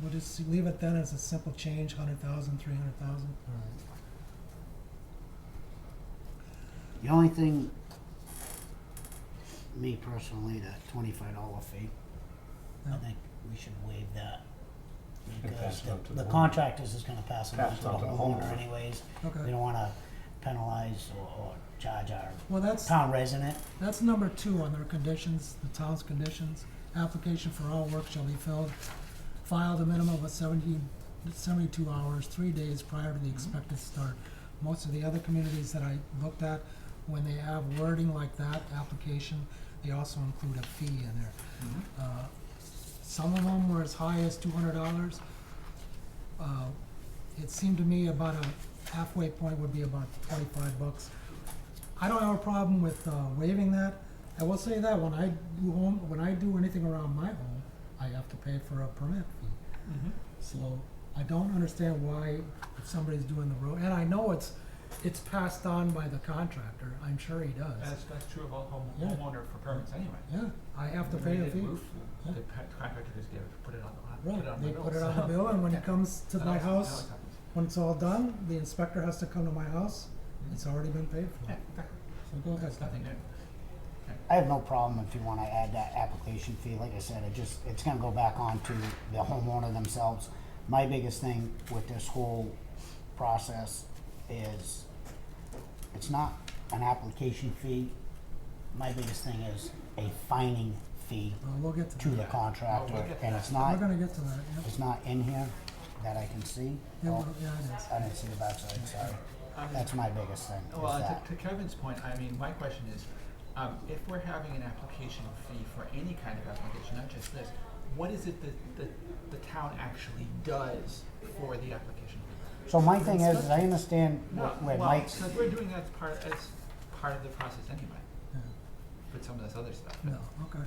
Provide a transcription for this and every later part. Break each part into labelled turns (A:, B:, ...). A: we'll just leave it then as a simple change, hundred thousand, three hundred thousand.
B: The only thing, me personally, the twenty-five dollar fee, I
A: Yeah.
B: think we should waive that.
C: And pass
B: Because
C: it
B: the,
C: on to the
B: the
C: homeowner.
B: contractors is gonna pass it on
C: Pass
B: to
C: it
B: the
C: on to the
B: homeowner
C: homeowner.
B: anyways. We
A: Okay,
B: don't wanna penalize or, or charge our
A: well, that's,
B: town resident.
A: that's number two on their conditions, the town's conditions. Application for all work shall be filled, filed a minimum of 70 72 hours, three days prior to the expected start. Most of the other communities that I looked at, when they have wording like that, application, they also include a fee in there. Uh, Some of them were as high as two hundred dollars. Uh, It seemed to me about a halfway point would be about twenty-five bucks. I don't have a problem with uh, waiving that. I will say that when I do home, when I do anything around my home, I have to pay for a permit fee.
D: Mm-hmm.
A: So I don't understand why if somebody's doing the road, and I know it's, it's passed on by the contractor, I'm sure he does.
D: That's, that's true of all home,
A: Yeah.
D: homeowner for permits anyway.
A: Yeah, I have to
D: When
A: pay
D: they
A: a
D: did
A: fee.
D: roof,
A: Yeah.
D: The pa- contractor just gave, it- put it on the, put it
A: Right,
D: on
A: they
D: the bill,
A: put it on the
D: so-
A: bill, and when
D: Yeah.
A: it comes to my
D: I know it's- I know it's
A: house,
D: happens.
A: when it's all done, the inspector has to come to my house, it's already been paid for.
D: Mm-hmm. Yeah, exactly.
A: So go ahead.
D: It's nothing new.
B: I have no problem if you wanna add that application fee, like I said, it just, it's gonna go back on to the homeowner themselves. My biggest thing with this whole process is, it's not an application fee. My biggest thing is a fining fee
A: Well, we'll get to
B: to the
A: that.
B: contractor,
D: get
B: and it's
A: We're
B: not,
A: gonna get to that, yeah.
B: it's not in here that I can see.
A: Yeah,
B: Oh,
A: well, yeah, it is.
B: I didn't see the backside, sorry.
D: I mean,
B: That's my biggest thing, is
D: Well,
B: that.
D: to- to Kevin's point, I mean, my question is, um, if we're having an application fee for any kind of application, not just this, what is it that, that the town actually does for the application? fee?
B: So my thing is, is I understand what- where
D: Well,
B: Mike's,
D: because we're doing that as part, as part of the process anyway,
A: Yeah.
D: with some of this other stuff.
A: No, okay.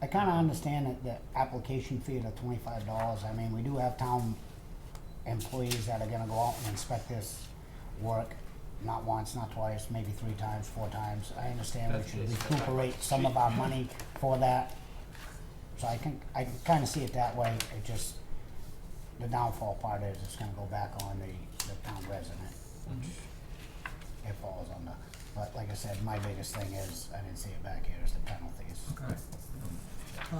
B: I kinda understand that the application fee of the twenty-five dollars, I mean, we do have town employees that are gonna go out and inspect this work, not once, not twice, maybe three times, four times. I understand we
D: That's
B: should
D: just-
B: recuperate some of our money for that. So I can, I can kinda see it that way, it just, the downfall part is it's gonna go back on the, the town resident, which it falls on the, but like I said, my biggest thing is, I didn't see it back here, is the penalties.
A: Okay. Uh,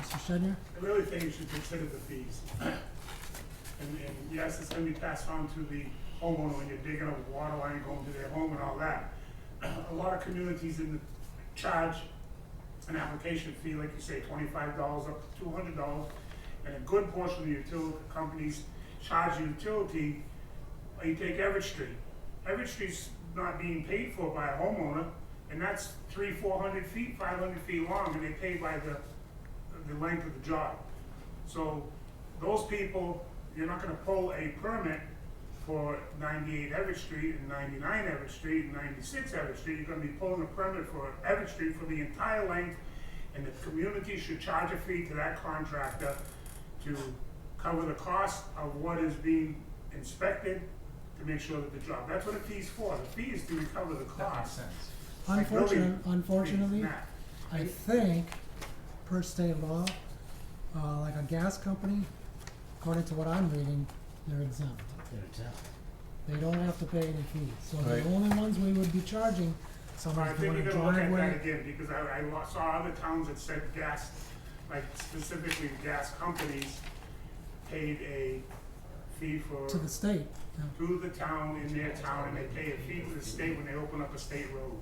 A: Mr. Shedner?
E: I really think you should consider the fees. And, and yes, it's gonna be passed on to the homeowner when you're digging a water line going to their home and all that. A lot of communities in the charge an application fee, like you say, twenty-five dollars up to two hundred dollars. And a good portion of the utility companies charge the utility, or you take Everett Street. Everett Street's not being paid for by a homeowner, and that's three, four hundred feet, five hundred feet long, and they pay by the the length of the job. So those people, you're not gonna pull a permit for ninety-eight Everett Street and ninety-nine Everett Street and ninety-six Everett Street. You're gonna be pulling a permit for Everett Street for the entire length, and the community should charge a fee to that contractor to cover the cost of what is being inspected to make sure that the job, that's what a fee's for. The fee is to recover the
D: That makes
E: cost.
D: sense.
E: Like building
A: Unfortunately,
E: fees,
A: unfortunately,
E: Matt.
A: I think per state law, uh, like a gas company, according to what I'm reading, they're exempt.
B: Good example.
A: They don't have to pay any fees. So the
C: Right.
A: only ones we would be charging,
E: I
A: somebody's
E: think
A: doing
E: you're
A: a
E: gonna look at that
A: driveway.
E: again, because I, I lo- saw other towns that said gas, like specifically gas companies paid a fee for,
A: To the state, yeah.
E: to the town in their town, and they pay a fee to the state when they open up a state road.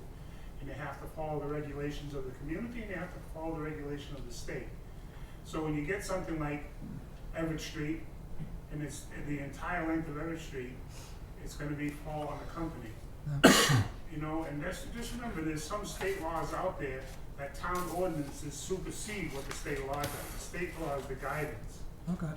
E: And they have to follow the regulations of the community, and they have to follow the regulation of the state. So when you get something like Everett Street, and it's, and the entire length of Everett Street, it's gonna be fall on the company. You know, and that's, just remember, there's some state laws out there that town ordinances supersede what the state law does. The state law is the guidance.
A: okay.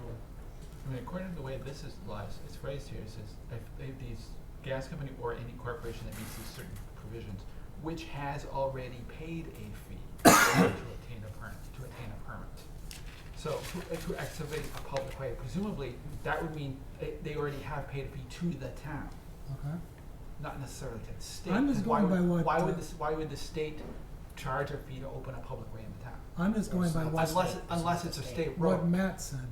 D: I mean, according to the way this is lies, it's phrased here, it says, if, if these gas company or any corporation that meets these certain provisions, which has already paid a fee to obtain a permit, to obtain a permit. So, to, uh, to excavate a public way, presumably, that would mean they, they already have paid a fee to the town,
A: Okay.
D: not necessarily to the state.
A: I'm just
D: 'cause why
A: going by
D: would-
A: what,
D: Why
A: uh,
D: would this, why would the state charge a fee to open a public way in the town?
A: I'm just going by what,
D: Unless, it- unless it's a state road.
A: what Matt said.